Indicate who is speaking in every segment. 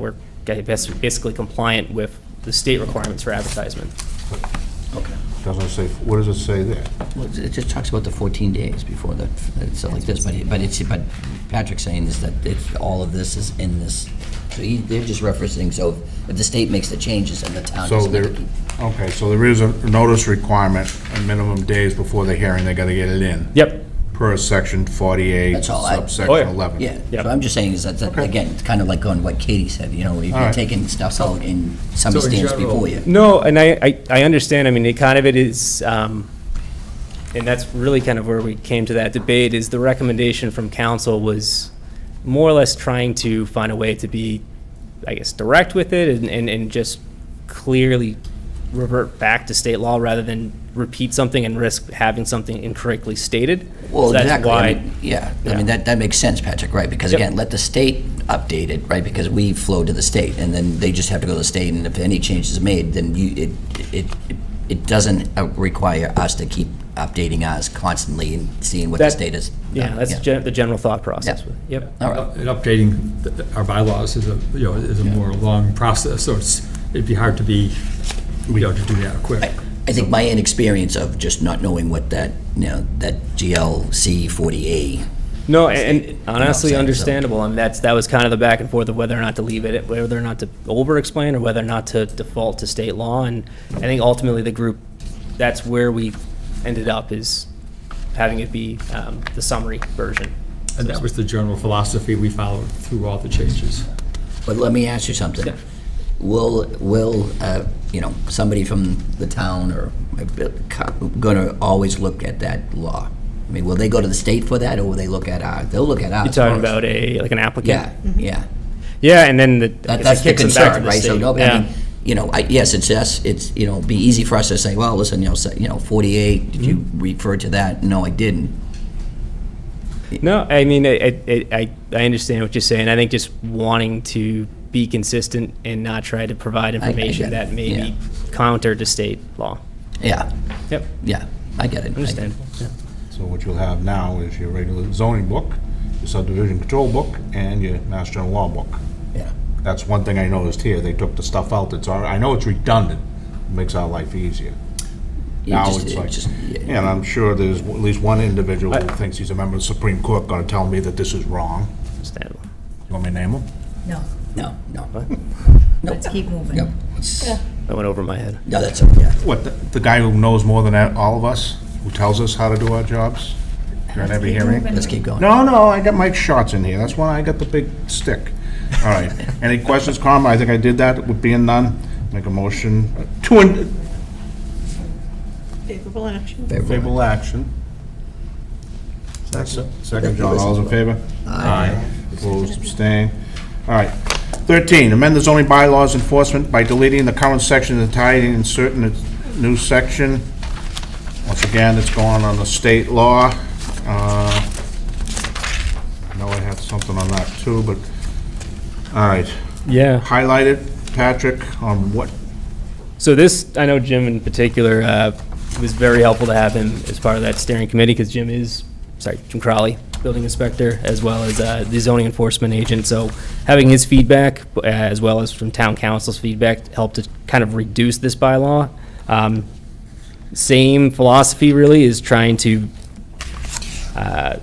Speaker 1: We're ga- bas- basically compliant with the state requirements for advertisement.
Speaker 2: Okay.
Speaker 3: Doesn't say, what does it say there?
Speaker 2: Well, it's- it just talks about the 14 days before the, it's like this, but, he- but it's, but Patrick's saying is that it's, all of this is in this. So he, they're just referencing, so if the state makes the changes and the town
Speaker 3: So
Speaker 2: doesn't have
Speaker 3: there,
Speaker 2: to keep.
Speaker 3: okay, so there is a notice requirement, a minimum days before the hearing, they gotta get it in.
Speaker 1: Yep,
Speaker 3: Per section 48,
Speaker 2: That's all I-
Speaker 1: Oh,
Speaker 3: subsection
Speaker 1: yeah.
Speaker 3: 11.
Speaker 2: Yeah,
Speaker 1: Yep.
Speaker 2: so I'm just saying is that, that,
Speaker 3: Okay.
Speaker 2: again, it's kind of like going what Katie said, you know, if you're
Speaker 3: right.
Speaker 2: taking stuff out and somebody
Speaker 4: So in
Speaker 2: stands
Speaker 4: general-
Speaker 2: before you.
Speaker 1: No, and I, I, I understand, I mean, it kind of it is, um, and that's really kind of where we came to that debate, is the recommendation from council was more or less trying to find a way to be, I guess, direct with it and, and, and just clearly revert back to state law rather than repeat something and risk having something incorrectly stated.
Speaker 2: Well,
Speaker 1: So that's
Speaker 2: exactly. I
Speaker 1: why-
Speaker 2: mean, Yeah, I
Speaker 1: Yeah.
Speaker 2: mean, that, that makes sense, Patrick, right? Because
Speaker 1: Yep.
Speaker 2: again, let the state update it, right? Because we flow to the state, and then they just have to go to the state, and if any change is made, then you, it, it, it doesn't uh, require us to keep updating us constantly and seeing what the
Speaker 1: That-
Speaker 2: state is. uh,
Speaker 1: Yeah, that's gen- the general thought process.
Speaker 2: Yeah.
Speaker 1: Yep.
Speaker 2: All right,
Speaker 4: And updating the- our bylaws is a, you know, is a more long process, so it's, it'd be hard to be, you know, to do that quick.
Speaker 2: I think my inexperience of just not knowing what that, you know, that GLC 40A,
Speaker 1: No, and and
Speaker 2: I'm
Speaker 1: honestly
Speaker 2: saying, so-
Speaker 1: understandable, and that's, that was kind of the back and forth of whether or not to leave it, whether or not to over-explain, or whether or not to default to state law, and I think ultimately the group, that's where we ended up, is having it be um, the summary version.
Speaker 4: And that was the general philosophy we followed through all the changes.
Speaker 2: But let me ask you something.
Speaker 1: Yeah.
Speaker 2: Will, will, uh, you know, somebody from the town or, gonna always look at that law? I mean, will they go to the state for that, or will they look at our, they'll look at ours
Speaker 1: You're talking
Speaker 2: first.
Speaker 1: about a, like an applicant?
Speaker 2: Yeah, yeah.
Speaker 1: Yeah, and then the. I
Speaker 2: That-
Speaker 1: guess
Speaker 2: That's
Speaker 1: it
Speaker 2: the
Speaker 1: kicks them back to
Speaker 2: concern,
Speaker 1: the
Speaker 2: right? So,
Speaker 1: state.
Speaker 2: no, I
Speaker 1: Yeah.
Speaker 2: mean, you know, I, yes, it's us, it's, you know, it'd be easy for us to say, well, listen, you know, so- you know, 48, did you
Speaker 1: Mm-hmm.
Speaker 2: refer to that? No, I didn't.
Speaker 1: No, I mean, I, I- I, I understand what you're saying. I think just wanting to be consistent and not try to provide
Speaker 2: get
Speaker 1: information
Speaker 2: it,
Speaker 1: that may
Speaker 2: yeah.
Speaker 1: be counter to state law.
Speaker 2: Yeah,
Speaker 1: Yep,
Speaker 2: yeah, I get it. I-
Speaker 1: understandable. yeah.
Speaker 3: So what you'll have now is your regular zoning book, your subdivision control book, and your mass general law book.
Speaker 2: Yeah.
Speaker 3: That's one thing I noticed here, they took the stuff out that's, alre- I know it's redundant, It makes our life easier.
Speaker 2: You
Speaker 3: Now
Speaker 2: just-
Speaker 3: it's
Speaker 2: it
Speaker 3: like,
Speaker 2: just- yeah.
Speaker 3: and I'm sure there's at least one individual who thinks he's a member of the Supreme Court gonna tell me that this is wrong.
Speaker 1: Understandable.
Speaker 3: You want me to name him?
Speaker 5: No,
Speaker 2: No, no,
Speaker 5: let's keep moving.
Speaker 2: no, it's-
Speaker 1: That went over my head.
Speaker 2: no, that's, a- yeah.
Speaker 3: What, the- the guy who knows more than all of us, who tells us how to do our jobs during every
Speaker 5: Keep
Speaker 3: hearing?
Speaker 5: moving.
Speaker 2: Let's keep going.
Speaker 3: No, no, I got Mike Schatz in here, that's why I got the big stick. All right, any questions, comment? I think I did that, with being none, make a motion to, in-
Speaker 6: Favorable action.
Speaker 3: favorable action. Second, Second, John, all those in favor? Aye. Opposed, abstained. All right. 13, amend the zoning bylaws enforcement by deleting the current section and tying in certain new section. Once again, it's going on the state law. Uh, I know I had something on that too, but, all right.
Speaker 1: Yeah.
Speaker 3: Highlighted, Patrick, on what,
Speaker 1: So this, I know Jim in particular, uh, it was very helpful to have him as part of that steering committee because Jim is, sorry, Jim Crowley, building inspector, as well as uh, the zoning enforcement agent. So having his feedback, uh, as well as from town council's feedback, helped to kind of reduce this bylaw. Um, Same philosophy really is trying to uh,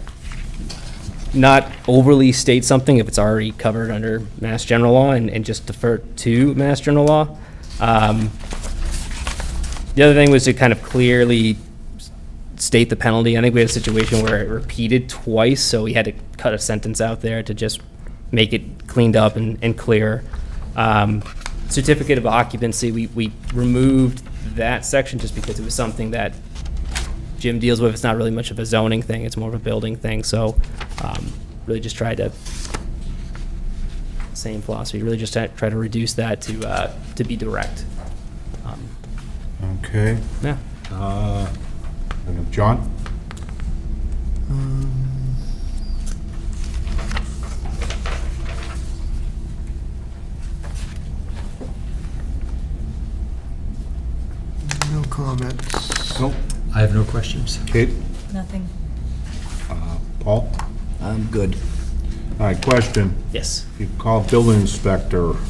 Speaker 1: not overly state something if it's already covered under mass general law and, and just defer to mass general law. Um, The other thing was to kind of clearly s- state the penalty. I think we had a situation where it repeated twice, so we had to cut a sentence out there to just make it cleaned up and, and clear. Um, Certificate of occupancy, we, we removed that section just because it was something that Jim deals with, it's not really much of a zoning thing, it's more of a building thing, so um, really just try to, same philosophy, really just try try to reduce that to, uh, to be direct. Um,
Speaker 3: okay,
Speaker 1: Yeah,
Speaker 3: John?
Speaker 7: Um, No comments.
Speaker 3: Nope.
Speaker 4: I have no questions.
Speaker 3: Kate?
Speaker 5: Nothing.
Speaker 3: Paul?
Speaker 2: I'm good. Um,
Speaker 3: All right, question.
Speaker 1: yes.
Speaker 3: You call building inspector.